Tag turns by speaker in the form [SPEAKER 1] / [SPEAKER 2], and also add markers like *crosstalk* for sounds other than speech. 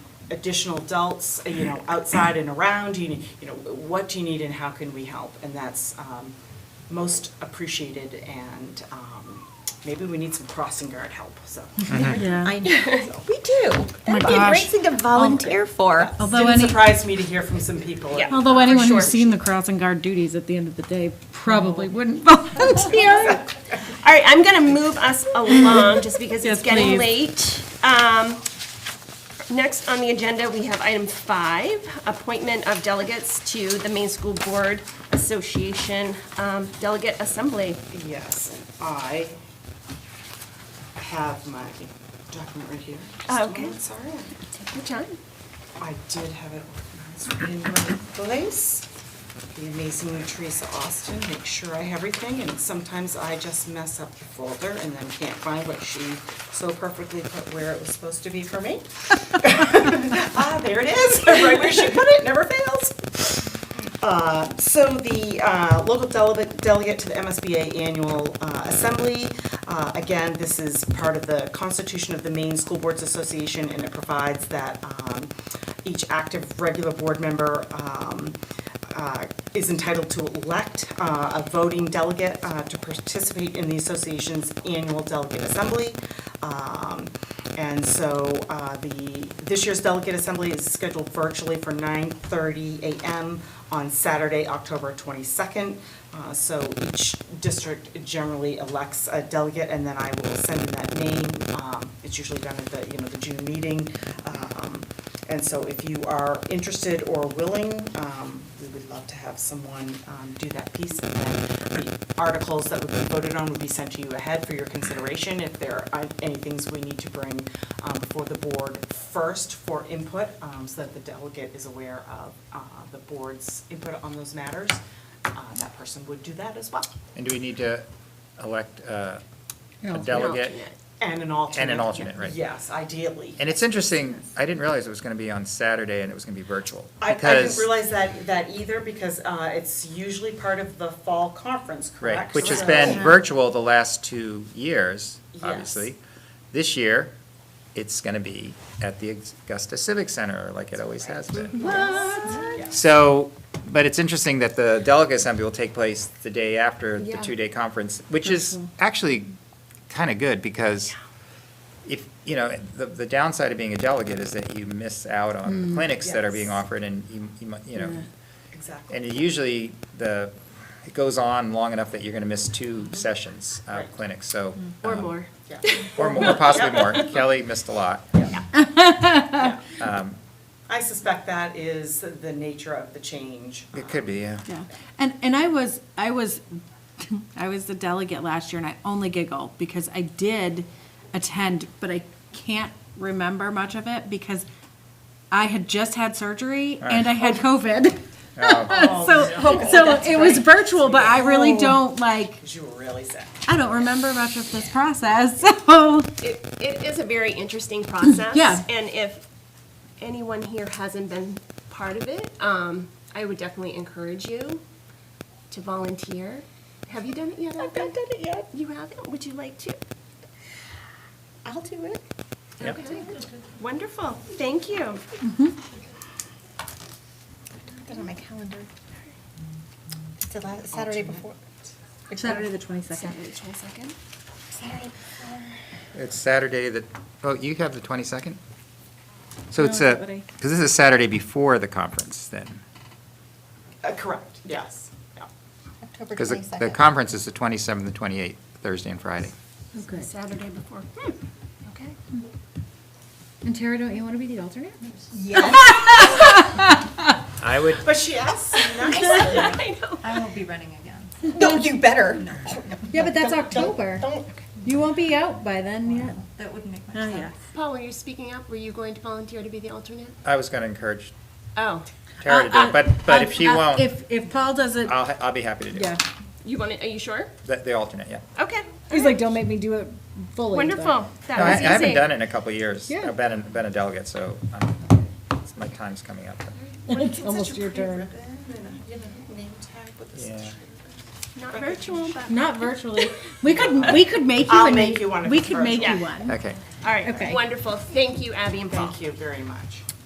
[SPEAKER 1] additional adults, uh, you know, outside and around, you, need- you know, what do you need and how can we help? And that's um, most appreciated and um, maybe we need some crossing guard help, so.
[SPEAKER 2] Yeah.
[SPEAKER 1] *laughs*
[SPEAKER 3] I know. We do.
[SPEAKER 4] Oh
[SPEAKER 3] That'd be a great
[SPEAKER 2] gosh.
[SPEAKER 3] thing to volunteer for.
[SPEAKER 2] Although
[SPEAKER 1] Didn't
[SPEAKER 2] any,
[SPEAKER 1] surprise me to hear from some people.
[SPEAKER 3] Yeah.
[SPEAKER 2] although anyone
[SPEAKER 3] sure.
[SPEAKER 2] who's seen the crossing guard duties at the end of the day probably wouldn't *laughs* volunteer.
[SPEAKER 3] All right, I'm going to move us along just because
[SPEAKER 2] Yes,
[SPEAKER 3] it's getting
[SPEAKER 2] please.
[SPEAKER 3] late. Um, Next on the agenda, we have item five, appointment of delegates to the Maine School Board Association um, Delegate Assembly.
[SPEAKER 1] Yes, and I have my document right here. Just a
[SPEAKER 3] Oh, okay.
[SPEAKER 1] moment, Sorry.
[SPEAKER 3] Take your time.
[SPEAKER 1] I did have it organized in one place. The amazing Teresa Austin, make sure I have everything, and sometimes I just mess up the folder and then can't find what she so perfectly put where it was supposed to be for me. *laughs* Ah, there it is, *laughs* right where she put it, never fails. Uh, So the uh, local delegate delegate to the MSBA Annual uh, Assembly, uh, again, this is part of the Constitution of the Maine School Boards Association, and it provides that um, each active regular board member um, uh, is entitled to elect uh, a voting delegate uh, to participate in the association's annual delegate assembly. Um, And so uh, the, this year's delegate assembly is scheduled virtually for 9:30 a.m. on Saturday, October 22nd. Uh, So each district generally elects a delegate, and then I will send in that name. Um, It's usually done at the, you know, the June meeting. Um, and so if you are interested or willing, um, we would love to have someone um, do that piece. And then the articles that would be voted on would be sent to you ahead for your consideration. If there are any things we need to bring um, before the board first for input, um, so that the delegate is aware of uh, the board's input on those matters, uh, that person would do that as well.
[SPEAKER 5] And do we need to elect uh,
[SPEAKER 2] Yeah.
[SPEAKER 5] a
[SPEAKER 2] An
[SPEAKER 5] delegate?
[SPEAKER 3] alternate.
[SPEAKER 1] And an alternate.
[SPEAKER 5] alternate, right.
[SPEAKER 1] Yes, ideally.
[SPEAKER 5] And it's interesting, I didn't realize it was going to be on Saturday and it was going to be virtual.
[SPEAKER 1] I, I didn't
[SPEAKER 5] because-
[SPEAKER 1] realize that, that either, because uh, it's usually part of the fall conference,
[SPEAKER 5] Right,
[SPEAKER 1] correct?
[SPEAKER 5] which has
[SPEAKER 1] So-
[SPEAKER 5] been virtual the last two years,
[SPEAKER 1] Yes.
[SPEAKER 5] obviously. This year, it's going to be at the Augusta Civic Center, like it always has been.
[SPEAKER 1] Yes.
[SPEAKER 5] So, but it's interesting that the delegate assembly will take place the day after the
[SPEAKER 3] Yeah.
[SPEAKER 5] two-day conference, which is actually kind of good because if, you know, the, the downside of being a delegate is that you miss out
[SPEAKER 3] Mm,
[SPEAKER 5] on clinics that are being
[SPEAKER 1] Yes.
[SPEAKER 5] offered and you, you mu- you know,
[SPEAKER 1] Exactly.
[SPEAKER 5] and usually the, it goes on long enough that you're going to miss two sessions of
[SPEAKER 1] Right.
[SPEAKER 5] clinics, so.
[SPEAKER 3] Or
[SPEAKER 5] um,
[SPEAKER 3] more.
[SPEAKER 1] Yeah.
[SPEAKER 5] Or more, possibly
[SPEAKER 3] *laughs*
[SPEAKER 5] more. Kelly missed a lot.
[SPEAKER 1] Yeah.
[SPEAKER 5] Um,
[SPEAKER 1] I suspect that is the nature of the change.
[SPEAKER 5] It could
[SPEAKER 3] *laughs*
[SPEAKER 5] be, yeah.
[SPEAKER 2] Yeah, and, and I was, I was, *laughs* I was the delegate last year, and I only giggle because I did attend, but I can't remember much of it because I had just had surgery and I *laughs* had COVID.
[SPEAKER 5] Oh,
[SPEAKER 2] *laughs* So, so it was virtual, but I really don't like,
[SPEAKER 1] Because you were really sick.
[SPEAKER 2] I don't remember much of this process, *laughs* so.
[SPEAKER 3] It, it is a very interesting process.
[SPEAKER 2] Yeah.
[SPEAKER 3] And if anyone here hasn't been part of it, um, I would definitely encourage you to volunteer. Have you done it yet? I've not done it yet. You haven't? Would you like to? I'll do it.
[SPEAKER 5] Yep.
[SPEAKER 3] Okay. Wonderful. Thank you.
[SPEAKER 4] Put it on my calendar. It's the last, Saturday before.
[SPEAKER 2] Saturday the twenty-second.
[SPEAKER 3] second.
[SPEAKER 4] Saturday before.
[SPEAKER 5] It's Saturday that, oh, you have the 22nd? So
[SPEAKER 2] No,
[SPEAKER 5] it's
[SPEAKER 2] not
[SPEAKER 5] a,
[SPEAKER 2] what I-
[SPEAKER 5] because this is Saturday before the conference then?
[SPEAKER 1] Uh, Correct, yes, yeah.
[SPEAKER 4] October
[SPEAKER 5] Because the- the
[SPEAKER 4] 22nd.
[SPEAKER 5] conference is the 27th and 28th, Thursday and Friday.
[SPEAKER 6] Okay.
[SPEAKER 3] Saturday before. Hmm. Okay.
[SPEAKER 6] And Tara, don't you want to be the alternate?
[SPEAKER 4] Yes.
[SPEAKER 5] I would,
[SPEAKER 1] But she asked nicely.
[SPEAKER 6] I won't be running again.
[SPEAKER 4] No, you better.
[SPEAKER 6] Yeah, but that's October.
[SPEAKER 4] Don't.
[SPEAKER 6] You won't be out by then yet.
[SPEAKER 7] That wouldn't make much
[SPEAKER 2] Oh,
[SPEAKER 7] sense.
[SPEAKER 2] yeah.
[SPEAKER 3] Paul, were you speaking up? Were you going to volunteer to be the alternate?
[SPEAKER 5] I was going to encourage
[SPEAKER 3] Oh,
[SPEAKER 5] Tara to do it, but, but if she
[SPEAKER 2] Uh, uh,
[SPEAKER 5] won't,
[SPEAKER 2] If, if Paul doesn't,
[SPEAKER 5] I'll, ha- I'll be happy to do
[SPEAKER 2] yeah,
[SPEAKER 5] it.
[SPEAKER 3] you want to, are you sure?
[SPEAKER 5] The, the alternate, yeah.
[SPEAKER 3] Okay.
[SPEAKER 2] he's like, don't make me do it fully. but-
[SPEAKER 3] Wonderful. That
[SPEAKER 5] No, I I
[SPEAKER 3] was easy.
[SPEAKER 5] haven't done it in a couple of years.
[SPEAKER 2] Yeah.
[SPEAKER 5] I've been, a- been a delegate, so um, it's- my time's coming up.
[SPEAKER 2] *laughs* It's almost your turn.
[SPEAKER 5] Yeah.
[SPEAKER 3] Not virtual, but.
[SPEAKER 2] Not virtually. We could, we could make you.
[SPEAKER 1] I'll
[SPEAKER 2] an-
[SPEAKER 1] make you one if
[SPEAKER 2] We
[SPEAKER 1] it's
[SPEAKER 2] could make
[SPEAKER 3] virtual.
[SPEAKER 2] you
[SPEAKER 3] Yeah.
[SPEAKER 2] one.
[SPEAKER 5] Okay.
[SPEAKER 3] All right,
[SPEAKER 2] Okay.
[SPEAKER 3] wonderful. Thank you, Abby and Paul.
[SPEAKER 1] Thank you very much.